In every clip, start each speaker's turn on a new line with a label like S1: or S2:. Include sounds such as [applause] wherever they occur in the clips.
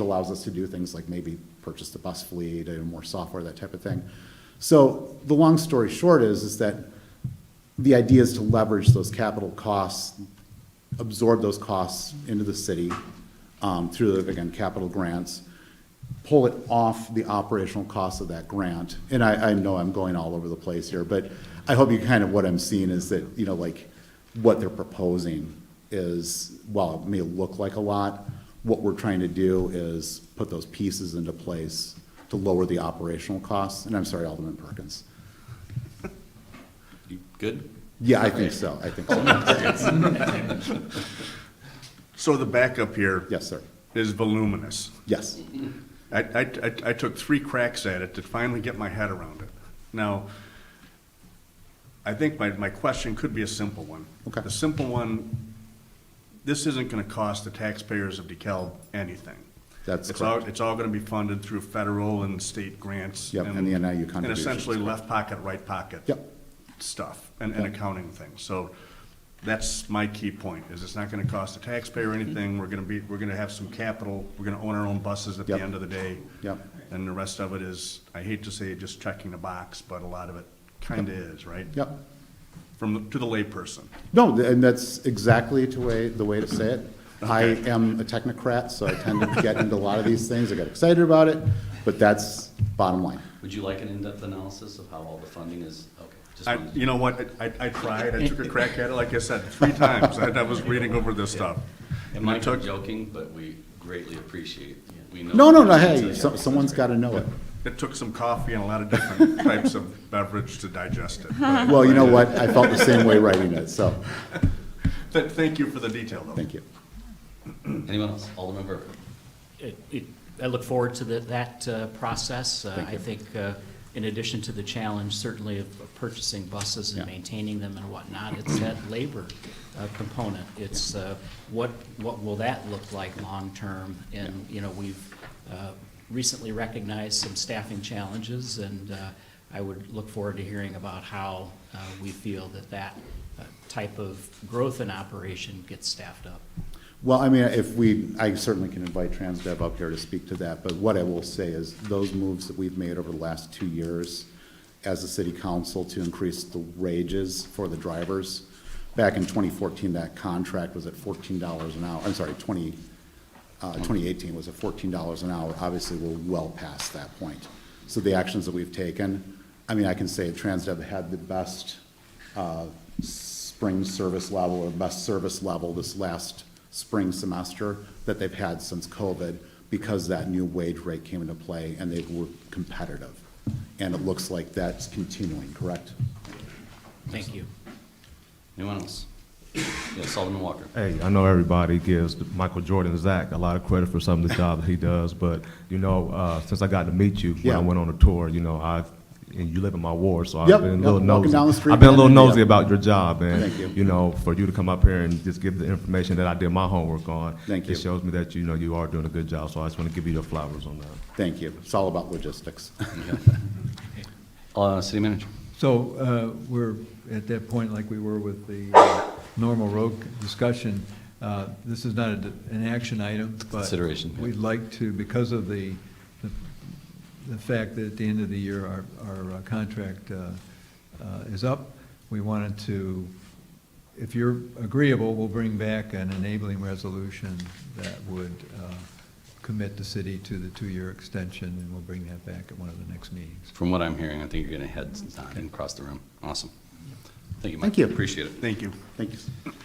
S1: allows us to do things like maybe purchase the bus fleet and more software, that type of thing. So the long story short is, is that the idea is to leverage those capital costs, absorb those costs into the city um, through, again, capital grants, pull it off the operational cost of that grant. And I, I know I'm going all over the place here, but I hope you kind of, what I'm seeing is that, you know, like, what they're proposing is, while it may look like a lot, what we're trying to do is put those pieces into place to lower the operational costs. And I'm sorry, Alderman Perkins.
S2: You good?
S1: Yeah, I think so, I think so.
S3: So the backup here
S1: Yes, sir.
S3: is voluminous.
S1: Yes.
S3: I, I, I- I took three cracks at it to finally get my head around it. Now, I think my, my question could be a simple one.
S1: Okay.
S3: The simple one, this isn't gonna cost the taxpayers of DeKalb anything.
S1: That's
S3: It's all-
S1: correct.
S3: It's all gonna be funded through federal and state grants.
S1: Yep, and the NIU contributions,
S3: And essentially
S1: correct.
S3: left pocket, right pocket.
S1: Yep.
S3: Stuff and, and accounting things. So that's my key point, is it's not gonna cost the taxpayer
S1: Mm-hmm.
S3: anything. We're gonna be, we're gonna have some capital. We're gonna own our own buses at
S1: Yep.
S3: the end of the day.
S1: Yep.
S3: And the rest of it is, I hate to say, just checking the box, but a lot of it kinda is, right?
S1: Yep.
S3: From, the- to the layperson.
S1: No, th- and that's exactly the way, the way to say it. I am a technocrat, so I tend to get into a lot of these things. I get excited about it, but that's bottom line.
S2: Would you like an in-depth analysis of how all the funding is? Okay. just
S3: I,
S2: wanted to-
S3: you know what, I- I, I tried, I took a crack at it, like I
S1: [laughs]
S3: said, three times, I, I was reading over this stuff.
S2: It
S3: And
S2: might
S3: it
S2: be
S3: took,
S2: joking, but we greatly appreciate, we know.
S1: No, no, no, hey, so- someone's got to know it.
S3: it took some coffee and a lot of different types of beverage to digest
S1: [laughs]
S3: it. but-
S1: Well, you know what? I felt the same way writing it, so,
S3: Th- Thank you for the detail, though.
S1: thank you.
S2: Anyone else? Alderman Burke.
S4: it- it- I look forward to the- that uh, process. Uh, I think uh, in addition to the challenge, certainly of of purchasing buses
S1: Yeah.
S4: and maintaining them and whatnot, it's that labor uh, component. It's uh, what, what will that look like long-term? And, you know, we've uh, recently recognized some staffing challenges, and uh, I would look forward to hearing about how uh, we feel that that uh, type of growth in operation gets staffed up.
S1: Well, I mean, if we, I certainly can invite Transdev up here to speak to that, but what I will say is those moves that we've made over the last two years as a city council to increase the wages for the drivers, back in twenty fourteen, that contract was at fourteen dollars an hour, I'm sorry, twenty, uh, twenty eighteen was at fourteen dollars an hour. Obviously, we're well past that point. So the actions that we've taken, I mean, I can say Transdev had the best, uh, spring service level or best service level this last spring semester that they've had since COVID because that new wage rate came into play and they were competitive. And it looks like that's continuing, correct?
S4: Thank you.
S2: Anyone else? Yes, Alderman Walker.
S5: Hey, I know everybody gives Michael Jordan Zach a lot of credit for some of the job that he does, but you know, uh, since I got to meet you when
S1: Yeah.
S5: I went on a tour, you know, I and you live in my ward, so
S1: Yep,
S5: I've been a
S1: yep,
S5: little
S1: walking
S5: nosy.
S1: down the street,
S5: I've been a
S1: man,
S5: little
S1: and-
S5: nosy
S1: yeah.
S5: about your job, and
S1: Thank you.
S5: know, for you to come up here and just give the information that I did my homework on,
S1: Thank you.
S5: it shows me that you know you are doing a good job. So I just want to give you the flowers on that.
S1: Thank you. It's all about logistics. [laughs]
S2: Uh, City Manager.
S6: So uh, we're at that point like we were with the uh, normal road discussion. Uh, This is not a- an action item, but.
S2: Consideration, yeah.
S6: We'd like to, because of the, the- the fact that at the end of the year, our, our uh, contract uh, uh, is up, we wanted to, if you're agreeable, we'll bring back an enabling resolution that would uh, commit the city to the two-year extension, and we'll bring that back at one of the next meetings.
S2: From what I'm hearing, I think you're gonna head nodding across the room. Awesome. Thank you, Mike.
S1: Thank you.
S2: Appreciate it.
S3: Thank you.
S1: Thank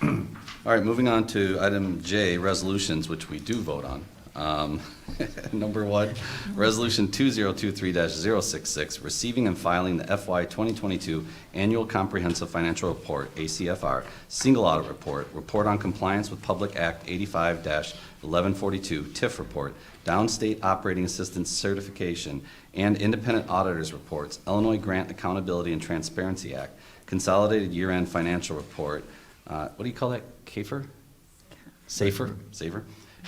S1: you.
S2: All right, moving on to item J, resolutions, which we do vote on. Um, [laughs] Number one, Resolution 2023-066, receiving and filing the FY 2022 Annual Comprehensive Financial Report, ACFR, Single Audit Report, Report on Compliance with Public Act 85-1142, TIF Report, Downstate Operating Assistance Certification, and Independent Auditors Reports, Illinois Grant Accountability and Transparency Act, Consolidated Year-End Financial Report, uh, what do you call that? CAFER? SAFER? SAFER?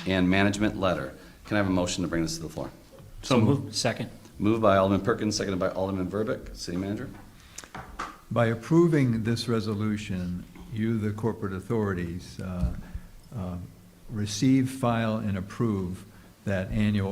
S2: And management letter. Can I have a motion to bring this to the floor?
S4: So moved. Second.
S2: Moved by Alderman Perkins, seconded by Alderman Verbeck. City Manager?
S6: By approving this resolution, you, the corporate authorities, uh, uh, receive, file, and approve that annual